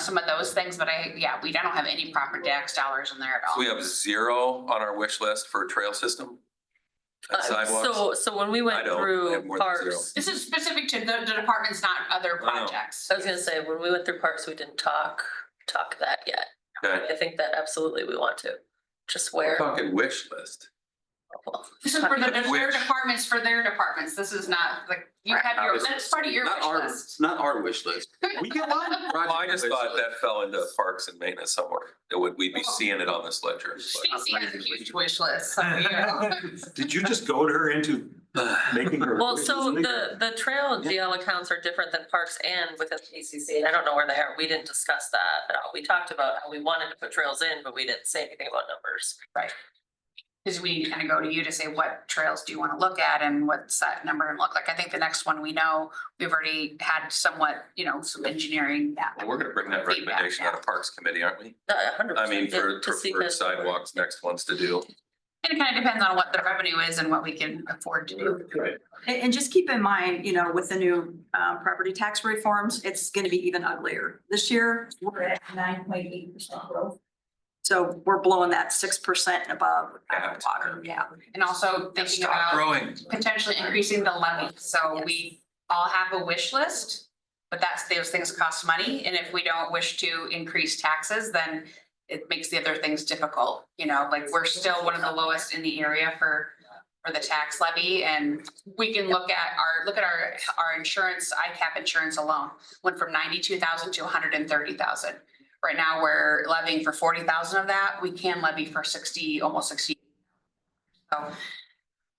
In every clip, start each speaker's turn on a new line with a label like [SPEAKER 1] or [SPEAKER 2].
[SPEAKER 1] some of those things, but I, yeah, we don't have any proper DAX dollars in there at all.
[SPEAKER 2] We have zero on our wish list for trail system.
[SPEAKER 3] Uh,
[SPEAKER 2] and Sidewalks.
[SPEAKER 3] So, so when we
[SPEAKER 2] I
[SPEAKER 3] went
[SPEAKER 2] don't. I
[SPEAKER 3] through
[SPEAKER 2] have more than
[SPEAKER 3] parks,
[SPEAKER 1] This is specific to the, the departments, not other
[SPEAKER 2] I know.
[SPEAKER 1] projects.
[SPEAKER 3] I was gonna say, when we went through parks, we didn't talk, talk that yet.
[SPEAKER 2] Okay,
[SPEAKER 3] I think that absolutely we want to, just
[SPEAKER 2] we're
[SPEAKER 3] where.
[SPEAKER 2] talking wish list.
[SPEAKER 1] This is for the, their
[SPEAKER 2] Which-
[SPEAKER 1] departments, for their departments. This is not like, you
[SPEAKER 3] Right.
[SPEAKER 1] have your,
[SPEAKER 4] Obviously.
[SPEAKER 1] that's part of your
[SPEAKER 4] Not
[SPEAKER 1] wish
[SPEAKER 4] our,
[SPEAKER 1] list.
[SPEAKER 4] not our wish list. We get one.
[SPEAKER 2] Well, I just
[SPEAKER 4] Project
[SPEAKER 2] thought
[SPEAKER 4] wish list.
[SPEAKER 2] that fell into parks and maintenance somewhere. That would, we'd be
[SPEAKER 3] Oh.
[SPEAKER 2] seeing it on this ledger. but-
[SPEAKER 1] Stacy has a huge wish list. so we are-
[SPEAKER 5] Did you just goad her into making her?
[SPEAKER 3] Well, so the, the trail GL accounts are different than parks and within the ACC, and I don't know where they are. We didn't discuss that at all. We talked about how we wanted to put trails in, but we didn't say anything about numbers.
[SPEAKER 1] Cause we kind of go to you to say what trails do you want to look at and what's that number and look like. I think the next one we know, we've already had somewhat, you know, some engineering.
[SPEAKER 2] Well, We're gonna bring that recommendation out of Parks Committee, aren't we?
[SPEAKER 3] Not Uh, a hundred
[SPEAKER 2] I
[SPEAKER 3] percent.
[SPEAKER 2] mean, for,
[SPEAKER 3] yeah, to
[SPEAKER 2] for
[SPEAKER 3] see
[SPEAKER 2] for
[SPEAKER 3] that-
[SPEAKER 2] sidewalks, next ones to do.
[SPEAKER 1] And it kind of depends on what the revenue is and what we can afford to do.
[SPEAKER 6] And, and just keep in mind, you know, with the new, um, property tax reforms, it's gonna be even uglier. This year, we're at nine point eight percent growth. So we're blowing that six percent above out of the water, yeah.
[SPEAKER 1] And also thinking
[SPEAKER 2] Stop
[SPEAKER 1] about
[SPEAKER 2] growing.
[SPEAKER 1] potentially increasing the levy. So we all have a wish list. But that's, those things cost money. And if we don't wish to increase taxes, then it makes the other things difficult. You know, like we're still one of the lowest in the area for, for the tax levy. And we can look at our, look at our, our insurance, ICAP insurance alone went from ninety-two thousand to hundred and thirty thousand. Right now, we're levying for forty thousand of that. We can levy for sixty, almost sixty. So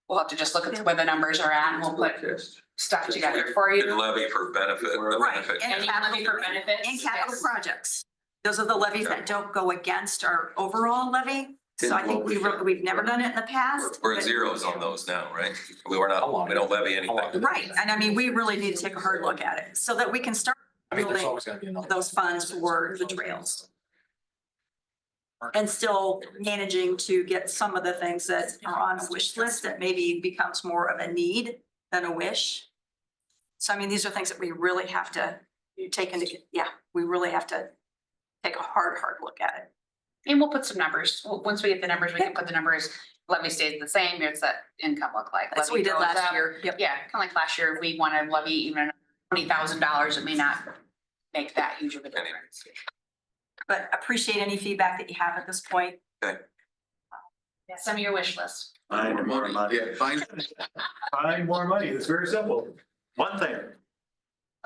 [SPEAKER 1] we'll have to just look at where the numbers are at and we'll put stuff together for
[SPEAKER 2] And
[SPEAKER 1] you.
[SPEAKER 2] levy for benefit, the
[SPEAKER 6] Right,
[SPEAKER 2] benefit.
[SPEAKER 1] And
[SPEAKER 6] and
[SPEAKER 1] you can levy for
[SPEAKER 6] capital,
[SPEAKER 1] benefits.
[SPEAKER 6] and capital
[SPEAKER 1] yes.
[SPEAKER 6] projects. Those are the levies that don't go against our overall levy. So I think we, re- we've never done it in the
[SPEAKER 2] We're-
[SPEAKER 6] past.
[SPEAKER 2] We're
[SPEAKER 6] but-
[SPEAKER 2] zeros on those now, right? We were not, we don't levy anything.
[SPEAKER 6] Right, and I mean, we really need to take a hard look at it so that we can start
[SPEAKER 7] I mean, there's
[SPEAKER 6] building
[SPEAKER 7] always gonna be another.
[SPEAKER 6] those funds for the trails. And still managing to get some of the things that are on a wish list that maybe becomes more of a need than a wish. So I mean, these are things that we really have to take into, yeah, we really have to take a hard, hard look at it.
[SPEAKER 1] And we'll put some numbers. W- Once we get the numbers, we can put the numbers, levy stays the same, here's that income look like.
[SPEAKER 6] That's what we
[SPEAKER 1] Levy
[SPEAKER 6] did
[SPEAKER 1] goes
[SPEAKER 6] last
[SPEAKER 1] up.
[SPEAKER 6] year. Yep.
[SPEAKER 1] Yeah, kind of like last year, we want to levy even twenty thousand dollars. It may not make that huge of a difference.
[SPEAKER 6] But appreciate any feedback that you have at this point.
[SPEAKER 1] Some of your wish list.
[SPEAKER 5] Find more money.
[SPEAKER 4] Yeah, fine.
[SPEAKER 5] Find more money. It's very simple. One thing.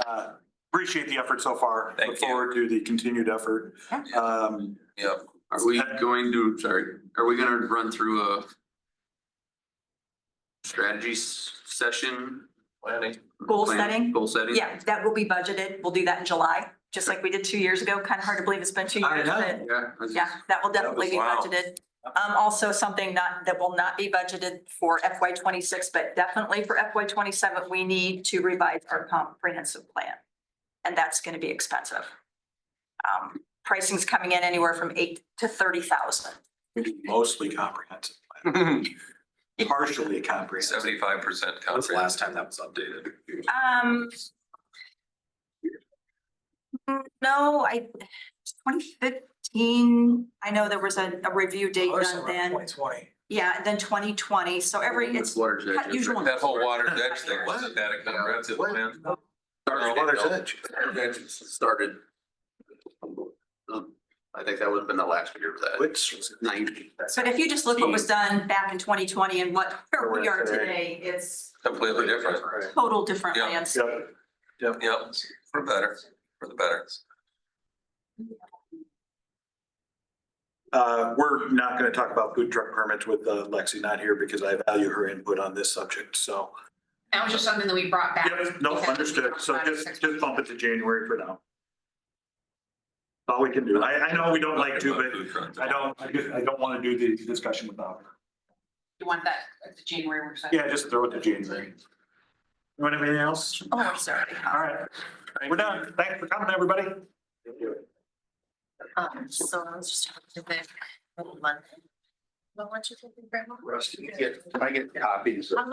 [SPEAKER 5] Uh, Appreciate the effort so far.
[SPEAKER 2] Thank
[SPEAKER 5] Look
[SPEAKER 2] you.
[SPEAKER 5] forward to the continued effort. Um,
[SPEAKER 2] Yep.
[SPEAKER 4] Are we going to, sorry, are we gonna run through a strategy s- session? Planning.
[SPEAKER 6] Goal setting?
[SPEAKER 4] Goal setting?
[SPEAKER 6] Yeah, that will be budgeted. We'll do that in July, just like we did two years ago. Kind of hard to believe it's been two
[SPEAKER 5] I
[SPEAKER 6] years,
[SPEAKER 5] know.
[SPEAKER 6] but
[SPEAKER 4] Yeah. I was-
[SPEAKER 6] Yeah, that will definitely be
[SPEAKER 2] Wow.
[SPEAKER 6] budgeted. Um, also something not, that will not be budgeted for FY twenty-six, but definitely for FY twenty-seven, we need to revise our comprehensive plan. And that's gonna be expensive. Um, pricing's coming in anywhere from eight to thirty thousand.
[SPEAKER 5] Mostly comprehensive,
[SPEAKER 6] Oh,
[SPEAKER 5] plan. partially comprehensive.
[SPEAKER 2] Seventy-five percent
[SPEAKER 7] When's the
[SPEAKER 2] comprehensive.
[SPEAKER 7] last time that was updated?
[SPEAKER 6] Um. mm, No, I, twenty fifteen, I know there was a, a review date done then.
[SPEAKER 7] Twenty twenty.
[SPEAKER 6] Yeah, and then twenty twenty, so every, it's
[SPEAKER 4] With water jet.
[SPEAKER 6] not usual.
[SPEAKER 2] That whole water ditch thing,
[SPEAKER 6] What?
[SPEAKER 2] wasn't that a comprehensive plan?
[SPEAKER 4] Started-
[SPEAKER 5] Water's Edge.
[SPEAKER 4] Water's Edge Started. um, I think that would have been the last year of that.
[SPEAKER 5] Which
[SPEAKER 4] Ninety.
[SPEAKER 6] But if you just look what was done back in twenty twenty and what where we are today, it's
[SPEAKER 2] Completely different.
[SPEAKER 6] total different
[SPEAKER 2] Yeah.
[SPEAKER 6] landscape.
[SPEAKER 5] Yep.
[SPEAKER 2] Yep, for better, for the better.
[SPEAKER 5] Uh, we're not gonna talk about food truck permits with uh, Lexi not here because I value her input on this subject, so.
[SPEAKER 1] That was just something that we brought back.
[SPEAKER 5] Yep, no,
[SPEAKER 1] because we
[SPEAKER 5] understood.
[SPEAKER 1] talked
[SPEAKER 5] So
[SPEAKER 1] about it
[SPEAKER 5] just,
[SPEAKER 1] six
[SPEAKER 5] just bump it to January for now. All we can do. I, I know we don't like to, but I don't, I just- I don't want to do the discussion without her.
[SPEAKER 1] You want that at the January work session?
[SPEAKER 5] Yeah, just throw it to January. You want anything else?
[SPEAKER 6] Oh, I'm sorry.
[SPEAKER 5] All right. We're done. Thanks for coming, everybody.
[SPEAKER 3] Um, so I was just talking to the Monday. Well, why don't you take the grandma?
[SPEAKER 7] Rusty, get, can I get copies of?